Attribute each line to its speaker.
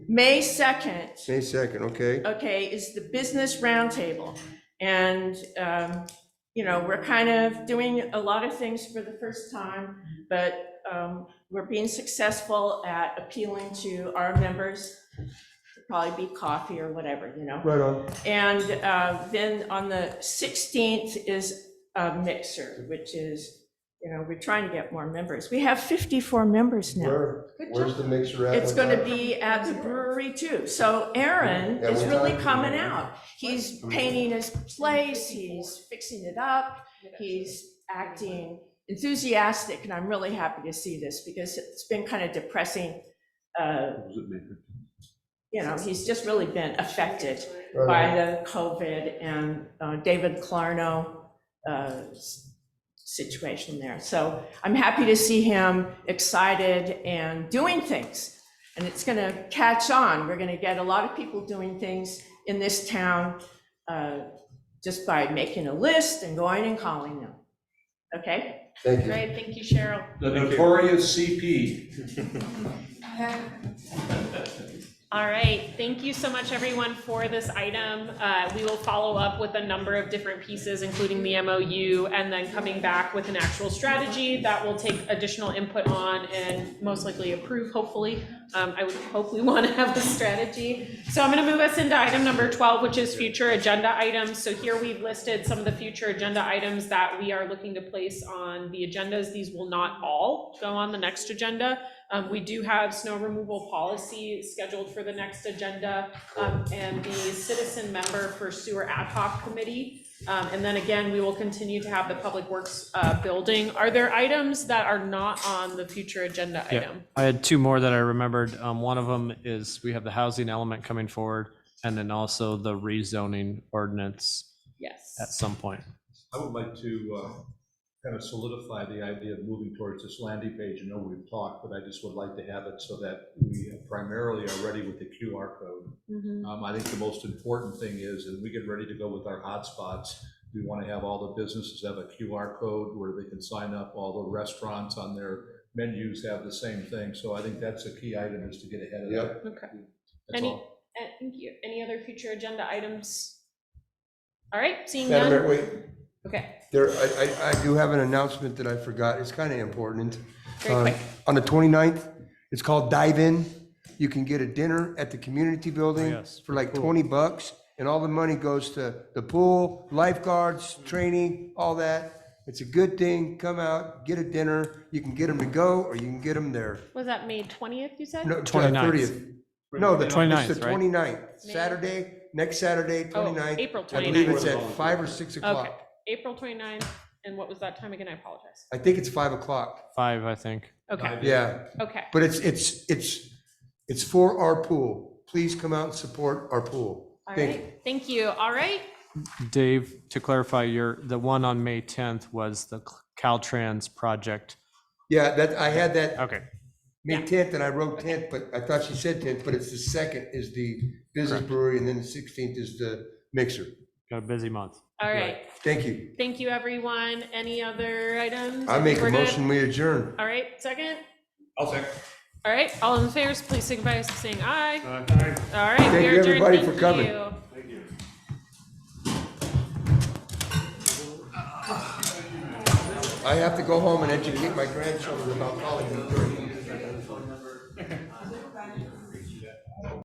Speaker 1: May 2nd,
Speaker 2: May 2nd, okay?
Speaker 1: okay, is the business roundtable. And, um, you know, we're kind of doing a lot of things for the first time, but um, we're being successful at appealing to our members. Probably be coffee or whatever, you know?
Speaker 2: Right on.
Speaker 1: And uh, then on the 16th is a mixer, which is, you know, we're trying to get more members. We have 54 members now.
Speaker 2: Where, where's the mixer at?
Speaker 1: It's going to be at the brewery too. So Aaron
Speaker 2: Yeah,
Speaker 1: is
Speaker 2: we're
Speaker 1: really
Speaker 2: talking
Speaker 1: coming
Speaker 2: about-
Speaker 1: out. He's painting his place, he's fixing it up, he's acting enthusiastic, and I'm really happy to see this because it's been kind of depressing. uh, You know, he's just really been affected by
Speaker 2: Right
Speaker 1: the COVID and uh, David Clarno uh, s- situation there. So I'm happy to see him excited and doing things. And it's going to catch on. We're going to get a lot of people doing things in this town uh, just by making a list and going and calling them. Okay?
Speaker 2: on. Thank you.
Speaker 3: Great, thank you, Cheryl.
Speaker 4: The notorious CP.
Speaker 3: All right, thank you so much, everyone, for this item. Uh, We will follow up with a number of different pieces, including the MOU, and then coming back with an actual strategy that we'll take additional input on and most likely approve, hopefully. Um, I would hope we want to have a strategy. So I'm going to move us into item number 12, which is future agenda items. So here we've listed some of the future agenda items that we are looking to place on the agendas. These will not all go on the next agenda. Um, we do have snow removal policy scheduled for the next agenda, um, and the citizen member for sewer ad hoc committee. Um, and then again, we will continue to have the public works, uh, building. Are there items that are not on the future agenda
Speaker 5: Yeah.
Speaker 3: item?
Speaker 5: I had two more that I remembered. Um, one of them is we have the housing element coming forward and then also the rezoning ordinance at
Speaker 3: Yes.
Speaker 5: some point.
Speaker 4: I would like to uh, kind of solidify the idea of moving towards this landing page. I know we've talked, but I just would like to have it so that we primarily are ready with the QR code.
Speaker 3: Mhm.
Speaker 4: Um, I think the most important thing is, as we get ready to go with our hotspots, we want to have all the businesses have a QR code where they can sign up, all the restaurants on their menus have the same thing. So I think that's a key item is to get ahead of that.
Speaker 2: Yep.
Speaker 3: Okay.
Speaker 4: That's
Speaker 3: Any,
Speaker 4: all.
Speaker 3: uh, thank you. Any other future agenda items? All right, seeing
Speaker 2: Madam
Speaker 3: none.
Speaker 2: Mayor, wait,
Speaker 3: Okay,
Speaker 2: there, I, I, I do have an announcement that I forgot. It's kind of important.
Speaker 3: very
Speaker 2: Um,
Speaker 3: quick.
Speaker 2: On the 29th, it's called Dive In. You can get a dinner at the community
Speaker 5: Oh,
Speaker 2: building
Speaker 5: yes.
Speaker 2: for like 20 bucks, and all the money goes to the pool, lifeguards, training, all that. It's a good thing. Come out, get a dinner. You can get them to go, or you can get them there.
Speaker 3: Was that May twentieth, you said?
Speaker 2: No, uh,
Speaker 5: 29th.
Speaker 2: 30th. No, the 29th,
Speaker 5: 29th,
Speaker 2: it's the
Speaker 5: right?
Speaker 2: 29th, Saturday, next Saturday,
Speaker 3: Oh,
Speaker 2: 29th.
Speaker 3: April
Speaker 2: I believe
Speaker 3: twenty-ninth.
Speaker 2: it's at 5 or 6
Speaker 3: Okay,
Speaker 2: o'clock.
Speaker 3: April 29th, and what was that time again? I apologize.
Speaker 2: I think it's 5 o'clock.
Speaker 5: Five, I think.
Speaker 3: Okay,
Speaker 2: Yeah,
Speaker 3: okay,
Speaker 2: but it's, it's, it's, it's for our pool. Please come out and support our pool.
Speaker 3: all
Speaker 2: Thank you.
Speaker 3: right, thank you, all right,
Speaker 5: Dave, to clarify, your, the one on May 10th was the Caltrans project.
Speaker 2: Yeah, that, I had that,
Speaker 5: Okay.
Speaker 2: May 10th, and I wrote 10th, but I thought she said 10th, but it's the second is the business brewery, and then the 16th is the mixer.
Speaker 5: Got a busy month.
Speaker 3: all right.
Speaker 2: Thank you.
Speaker 3: Thank you, everyone. Any other items?
Speaker 2: I make a
Speaker 3: We're good?
Speaker 2: motion, we adjourn.
Speaker 3: All right, second,
Speaker 4: I'll second.
Speaker 3: all right, all in favor, please signify by saying aye. All right,
Speaker 2: Thank
Speaker 3: we
Speaker 2: you,
Speaker 3: are adjourned,
Speaker 2: everybody, for
Speaker 3: thank
Speaker 2: coming.
Speaker 3: you.
Speaker 2: I have to go home and educate my grandchildren about college.